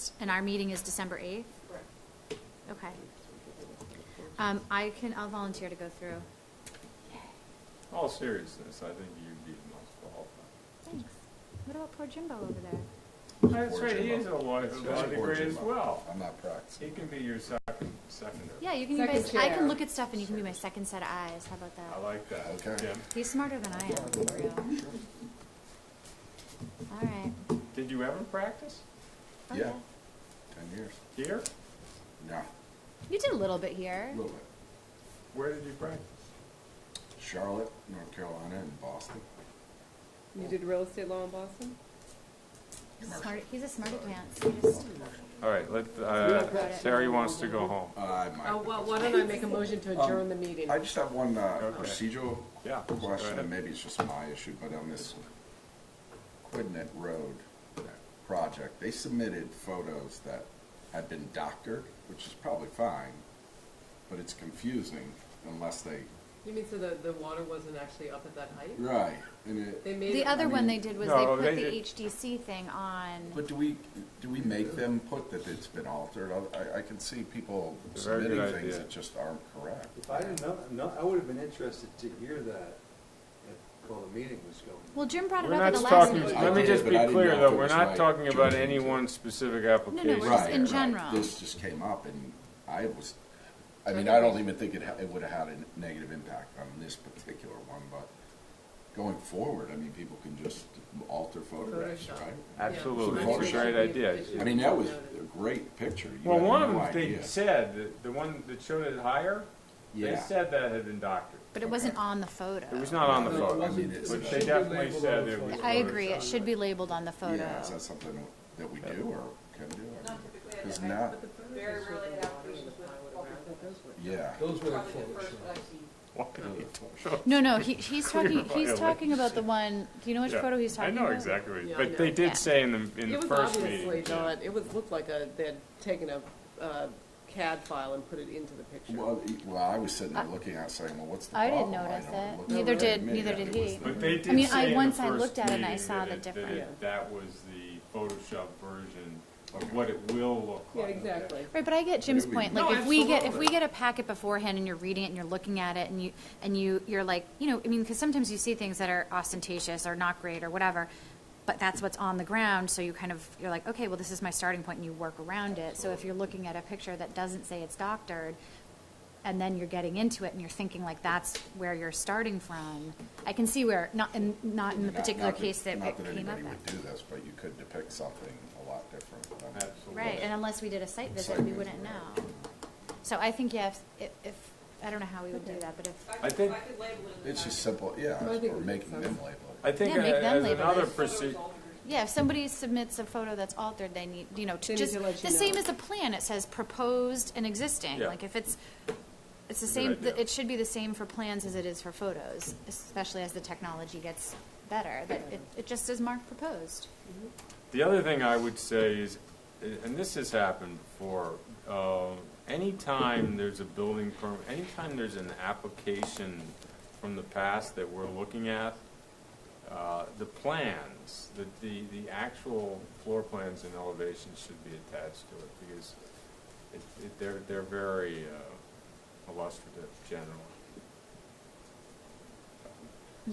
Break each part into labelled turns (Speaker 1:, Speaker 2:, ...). Speaker 1: first, and our meeting is December eighth?
Speaker 2: Correct.
Speaker 1: Okay. Um, I can, I'll volunteer to go through.
Speaker 3: In All seriousness, I think you'd be the most qualified.
Speaker 1: Thanks. What about poor Jimbo over there?
Speaker 3: That's right, he is a lawyer,
Speaker 4: That's
Speaker 3: law degree as
Speaker 4: unfortunate.
Speaker 3: well.
Speaker 4: I'm not
Speaker 3: He
Speaker 4: practicing.
Speaker 3: can be your second, secondary.
Speaker 1: Yeah, you can be my,
Speaker 2: Second
Speaker 1: I can
Speaker 2: chair.
Speaker 1: look at stuff and you can be my second set of eyes, how about
Speaker 3: I
Speaker 1: that?
Speaker 3: like that.
Speaker 4: Okay.
Speaker 3: Jim,
Speaker 1: He's smarter than I am, for real. All right.
Speaker 3: did you ever practice
Speaker 1: Oh,
Speaker 4: Yeah. Ten years?
Speaker 3: here?
Speaker 4: No,
Speaker 1: You did a little bit here.
Speaker 4: a little bit.
Speaker 3: Where did you practice?
Speaker 4: Charlotte, North Carolina, and Boston.
Speaker 2: You did real estate law in Boston?
Speaker 1: Smart, he's a smart advance. He just-
Speaker 3: All right, let,
Speaker 2: uh,
Speaker 3: Terry wants to go home.
Speaker 4: Uh, I
Speaker 2: Oh,
Speaker 4: might.
Speaker 2: well, why don't I make a motion to adjourn the meeting?
Speaker 4: Um, I just have one uh,
Speaker 3: Okay.
Speaker 4: procedural
Speaker 3: Yeah, go
Speaker 4: question,
Speaker 3: ahead.
Speaker 4: and maybe it's just my issue, but on this Quidnet Road project, they submitted photos that had been doctored, which is probably fine, but it's confusing unless they,
Speaker 2: You mean so the, the water wasn't actually up at that height?
Speaker 4: right, and it.
Speaker 2: They made.
Speaker 1: The
Speaker 2: it-
Speaker 1: other one they
Speaker 4: mean-
Speaker 1: did was they
Speaker 3: No,
Speaker 1: put
Speaker 3: they
Speaker 1: the
Speaker 3: did-
Speaker 1: HDC thing on.
Speaker 4: But do we, do we make them put that it's been altered? I, I can see people
Speaker 3: It's a very
Speaker 4: submitting
Speaker 3: good
Speaker 4: things
Speaker 3: idea.
Speaker 4: that just aren't correct.
Speaker 5: If I didn't know, no, I would have been interested to hear that at- while the meeting was going.
Speaker 1: Well, Jim brought it
Speaker 3: We're
Speaker 1: up
Speaker 3: not
Speaker 1: at the last
Speaker 3: talking,
Speaker 1: meeting.
Speaker 4: I
Speaker 3: let me
Speaker 4: did,
Speaker 3: just
Speaker 4: but
Speaker 3: be
Speaker 4: I didn't know
Speaker 3: clear
Speaker 4: if it
Speaker 3: though, we're
Speaker 4: was
Speaker 3: not
Speaker 4: like
Speaker 3: talking about
Speaker 4: choosing
Speaker 3: any
Speaker 4: to-
Speaker 3: one specific
Speaker 1: No, no,
Speaker 3: application.
Speaker 1: we're just
Speaker 4: Right,
Speaker 1: in
Speaker 4: right.
Speaker 1: general.
Speaker 4: This just came up and I was, I mean, I don't even think it, ha- it would have had a negative impact on this particular one, but going forward, I mean, people can just alter photographs,
Speaker 2: Photoshop.
Speaker 3: Ab-
Speaker 4: right?
Speaker 3: Absolutely,
Speaker 4: it's a
Speaker 3: great idea.
Speaker 4: I mean, that was a great picture. You
Speaker 3: Well,
Speaker 4: had
Speaker 3: one of
Speaker 4: no
Speaker 3: them, they
Speaker 4: idea.
Speaker 3: said, that the one that showed it higher, they
Speaker 4: Yeah.
Speaker 3: said that had been doctored.
Speaker 1: But it wasn't on the photo.
Speaker 3: It was not on the
Speaker 5: No, it
Speaker 3: photo.
Speaker 5: wasn't.
Speaker 4: I mean, it's-
Speaker 3: Which
Speaker 5: It
Speaker 3: they
Speaker 5: should be
Speaker 3: definitely
Speaker 5: labeled
Speaker 3: said
Speaker 5: on the
Speaker 3: it was.
Speaker 5: photo.
Speaker 1: I agree, it should be labeled on the photo.
Speaker 4: Yeah, is that something that we do or can do? I
Speaker 6: Not
Speaker 4: mean,
Speaker 6: typically, I-
Speaker 4: 'cause
Speaker 6: I-
Speaker 4: now-
Speaker 6: but the very rarely I have issues with public.
Speaker 4: Yeah.
Speaker 5: Those were the
Speaker 6: Probably the first
Speaker 5: Photoshop.
Speaker 6: that I've seen.
Speaker 1: No, no, he, he's
Speaker 3: Clear
Speaker 1: talking, he's
Speaker 3: violation.
Speaker 1: talking about the one, do you know which
Speaker 3: Yeah.
Speaker 1: photo he's talking about?
Speaker 3: I know exactly, what-
Speaker 2: Yeah, I
Speaker 3: but they
Speaker 2: know.
Speaker 1: Yeah.
Speaker 3: did say in the, in
Speaker 2: It
Speaker 3: the
Speaker 2: was
Speaker 3: first
Speaker 2: obviously
Speaker 3: meeting. yeah.
Speaker 2: not, it was, looked like a, they had taken a uh, CAD file and put it into the picture.
Speaker 4: Well, e- well, I was sitting there looking at it saying, well, what's the
Speaker 1: I didn't
Speaker 4: problem?
Speaker 1: notice
Speaker 4: don't
Speaker 1: that.
Speaker 4: look
Speaker 1: Neither
Speaker 4: at it.
Speaker 1: did-
Speaker 4: Maybe
Speaker 1: neither
Speaker 4: it
Speaker 1: did
Speaker 4: was
Speaker 1: he.
Speaker 4: the-
Speaker 3: But they did say
Speaker 1: I mean, I-
Speaker 3: in the
Speaker 1: once I
Speaker 3: first
Speaker 1: looked at it and I
Speaker 3: meeting
Speaker 1: saw
Speaker 3: that
Speaker 1: the
Speaker 3: it- that it-
Speaker 1: difference.
Speaker 3: That was the Photoshop version of what it will look
Speaker 2: Yeah,
Speaker 3: like.
Speaker 2: exactly.
Speaker 1: Right, but I get Jim's
Speaker 4: we-
Speaker 1: point,
Speaker 3: No,
Speaker 1: like, if we get, if we
Speaker 3: absolutely.
Speaker 1: get a packet beforehand and you're reading it and you're looking at it and you, and you, you're like, you know, I mean, because sometimes you see things that are ostentatious or not great or whatever, but that's what's on the ground, so you kind of, you're like, okay, well, this is my starting point, and you work around it. So if you're looking at a picture that doesn't say it's doctored, and then you're getting into it and you're thinking like, that's where you're starting from, I can see where, not in, not in the
Speaker 4: Not- not
Speaker 1: particular case that it came
Speaker 4: Not
Speaker 1: up.
Speaker 4: that anybody
Speaker 1: in.
Speaker 4: would do this, but you could depict something a lot different. than-
Speaker 3: Absolutely.
Speaker 1: Right, and unless we did a site visit, we wouldn't know. So I think, yeah, if, if, I don't know how we would do that, but if,
Speaker 6: If
Speaker 3: I
Speaker 6: I could,
Speaker 3: think-
Speaker 6: if I could label it in the
Speaker 4: It's just
Speaker 6: packet.
Speaker 4: simple, yeah,
Speaker 2: I think
Speaker 4: or
Speaker 2: it
Speaker 4: making
Speaker 2: makes
Speaker 4: them
Speaker 2: sense.
Speaker 4: label
Speaker 3: I think
Speaker 1: Yeah,
Speaker 3: a-
Speaker 1: make them
Speaker 3: as
Speaker 1: label
Speaker 3: another
Speaker 1: it.
Speaker 3: procedure,
Speaker 6: Photos altered.
Speaker 1: yeah, if somebody submits a photo that's altered, they need, you know,
Speaker 2: They
Speaker 1: to
Speaker 2: need
Speaker 1: just,
Speaker 2: to let you
Speaker 1: the same
Speaker 2: know.
Speaker 1: as a plan, it says proposed and existing.
Speaker 3: Yeah.
Speaker 1: Like if it's, it's the
Speaker 3: Good
Speaker 1: same,
Speaker 3: idea.
Speaker 1: it should be the same for plans as it is for photos, especially as the technology gets better, that it, it just is marked proposed.
Speaker 3: the other thing I would say is, and this has happened before, uh, anytime there's a building permit, anytime there's an application from the past that we're looking at, uh, the plans, the, the, the actual floor plans and elevations should be attached to it, because it, it, they're, they're very uh, illustrative generally.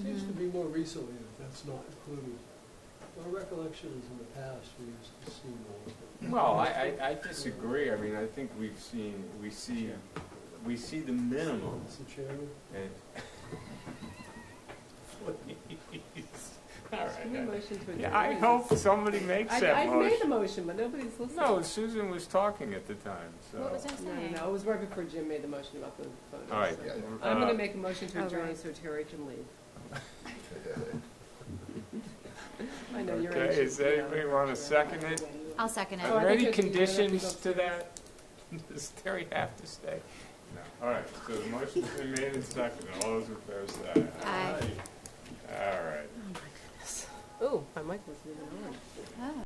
Speaker 7: Seems to be more recently that that's not included. My recollection is in the past, we used to see more. of it.
Speaker 3: Well, I, I, I disagree, I mean, I think we've seen, we see, we see the minimums
Speaker 7: Mr. Chairman,
Speaker 3: And- Please. All
Speaker 2: Can we
Speaker 3: right.
Speaker 2: motion to adjourn?
Speaker 3: Yeah, I hope somebody makes
Speaker 2: I,
Speaker 3: that
Speaker 2: I made the
Speaker 3: motion.
Speaker 2: motion, but nobody's listening.
Speaker 3: No, Susan was talking at the time, so.
Speaker 1: What was I
Speaker 2: No, no,
Speaker 1: saying?
Speaker 2: no, it was right before Jim made the motion about the photos.
Speaker 3: All right.
Speaker 2: so.
Speaker 4: Yeah.
Speaker 2: I'm
Speaker 3: uh,
Speaker 2: gonna make a motion to
Speaker 1: Oh,
Speaker 2: adjourn
Speaker 1: right.
Speaker 2: so Terry can leave.
Speaker 4: it.
Speaker 2: I know you're
Speaker 3: Okay,
Speaker 2: anxious.
Speaker 3: does anybody want to second it?
Speaker 1: I'll second
Speaker 2: Oh,
Speaker 3: Are
Speaker 2: I
Speaker 1: it.
Speaker 3: there
Speaker 2: think
Speaker 3: any
Speaker 2: it's- you don't have to go
Speaker 3: conditions to that? Does Terry have to stay? No. All right, so the motion's been made and seconded. All those in favor say aye.
Speaker 1: Aye.
Speaker 3: All right.
Speaker 2: Oh, my mic was even on.
Speaker 1: Oh.